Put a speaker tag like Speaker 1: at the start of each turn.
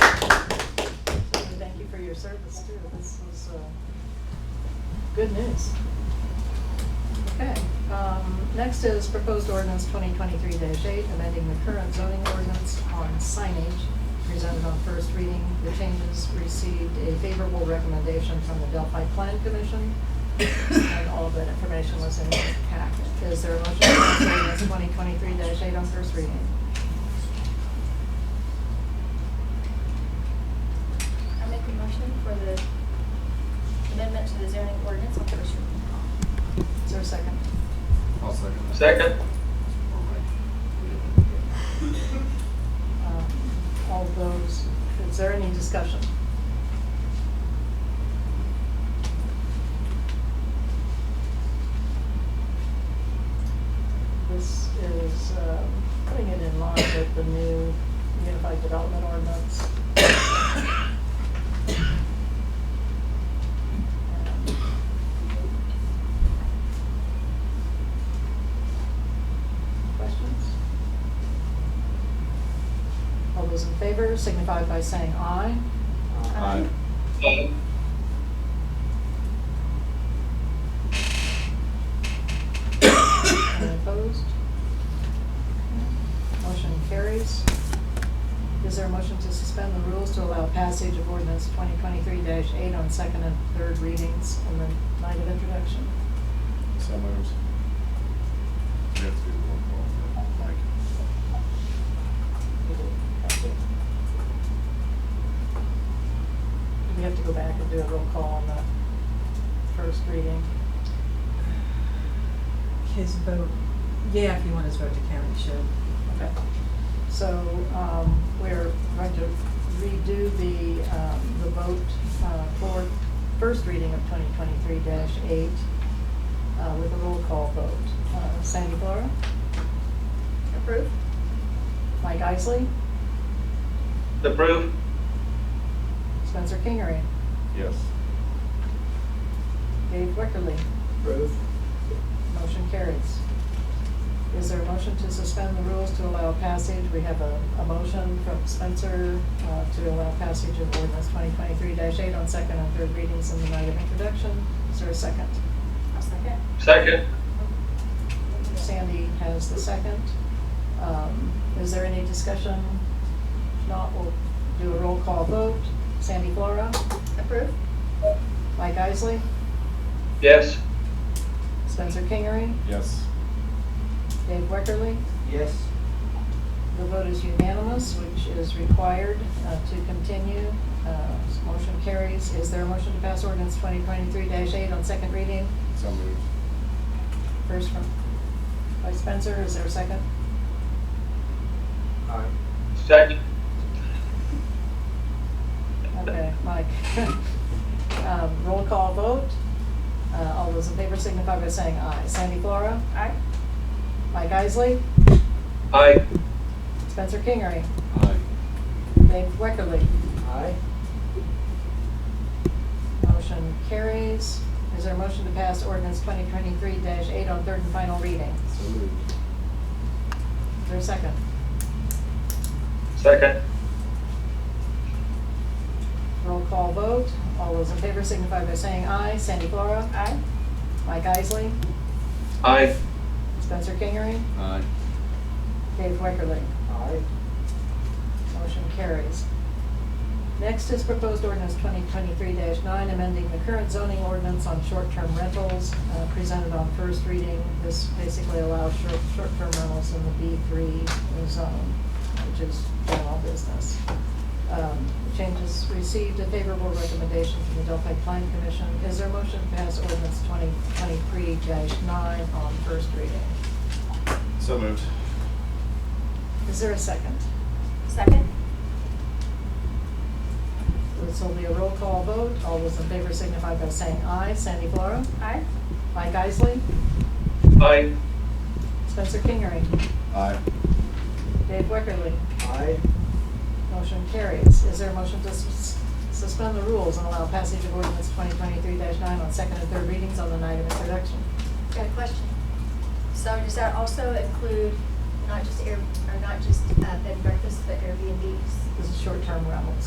Speaker 1: uh, Good news. Okay, um, next is proposed ordinance 2023-8, amending the current zoning ordinance on signage presented on first reading. The changes received a favorable recommendation from the Delphi Plan Commission, and all of that information was in the packet. Is there a motion to pass ordinance 2023-8 on first reading?
Speaker 2: I make a motion for the amendment to the zoning ordinance on first reading.
Speaker 1: Is there a second?
Speaker 3: I'll second that.
Speaker 4: Second?
Speaker 1: Um, All those, is there any discussion? This is um, putting it in line with the new Unified Development Ordinance. And Questions? All those in favor signify by saying aye.
Speaker 2: Aye.
Speaker 4: Aye.
Speaker 1: Any opposed? Motion carries. Is there a motion to suspend the rules to allow passage of ordinance 2023-8 on second and third readings on the night of introduction?
Speaker 3: So moves. We have to do roll call for Mike.
Speaker 1: We do. Do we have to go back and do a roll call on the first reading?
Speaker 5: His vote, yeah, if you want his vote to count, you should.
Speaker 1: Okay. So um, we're going to redo the, um, the vote uh, for first reading of 2023-8 uh, with a roll call vote. Uh, Sandy Flora,
Speaker 2: Approved?
Speaker 1: Mike Isley,
Speaker 4: Approve?
Speaker 1: Spencer Kingery,
Speaker 3: Yes.
Speaker 1: Dave Wickerly.
Speaker 4: Approve.
Speaker 1: Motion carries. Is there a motion to suspend the rules to allow passage? We have a, a motion from Spencer uh, to allow passage of ordinance 2023-8 on second and third readings in the night of introduction. Is there a second?
Speaker 2: I'll second.
Speaker 4: Second?
Speaker 2: Um,
Speaker 1: Sandy has the second. Um, Is there any discussion? If not, we'll do a roll call vote. Sandy Flora,
Speaker 2: Approved?
Speaker 1: Mike Isley,
Speaker 4: Yes?
Speaker 1: Spencer Kingery,
Speaker 3: Yes.
Speaker 1: Dave Weckerly.
Speaker 4: Yes.
Speaker 1: The vote is unanimous, which is required uh, to continue. Uh, Motion carries. Is there a motion to pass ordinance 2023-8 on second reading?
Speaker 3: So moves.
Speaker 1: First from, by Spencer, is there a second?
Speaker 4: Second?
Speaker 1: Okay, Mike. Um, Roll call vote. Uh, All those in favor signify by saying aye. Sandy Flora,
Speaker 2: Aye.
Speaker 1: Mike Isley,
Speaker 4: Aye.
Speaker 1: Spencer Kingery,
Speaker 3: Aye.
Speaker 1: Dave Weckerly.
Speaker 4: Aye.
Speaker 1: Motion carries. Is there a motion to pass ordinance 2023-8 on third and final reading?
Speaker 3: So moved.
Speaker 1: Is there a second?
Speaker 4: Second?
Speaker 1: Roll call vote. All those in favor signify by saying aye. Sandy Flora,
Speaker 2: Aye.
Speaker 1: Mike Isley,
Speaker 4: Aye.
Speaker 1: Spencer Kingery,
Speaker 3: Aye.
Speaker 1: Dave Wickerly.
Speaker 4: Aye.
Speaker 1: Motion carries. Next is proposed ordinance 2023-9, amending the current zoning ordinance on short-term rentals, uh, presented on first reading. This basically allows short- short-term rentals in the B3 zone, which is general business. Um, Changes received a favorable recommendation from the Delphi Plan Commission. Is there a motion to pass ordinance 2023-9 on first reading?
Speaker 3: So moved.
Speaker 1: Is there a second?
Speaker 2: Second?
Speaker 1: This will be a roll call vote. All those in favor signify by saying aye. Sandy Flora,
Speaker 2: Aye.
Speaker 1: Mike Isley,
Speaker 4: Aye.
Speaker 1: Spencer Kingery,
Speaker 3: Aye.
Speaker 1: Dave Wickerly.
Speaker 4: Aye.
Speaker 1: Motion carries. Is there a motion to sus- suspend the rules and allow passage of ordinance 2023-9 on second and third readings on the night of introduction?
Speaker 2: Got a question. So does that also include not just air, or not just uh, bed and uh, breakfast, but Airbnbs?
Speaker 1: This is short-term rentals.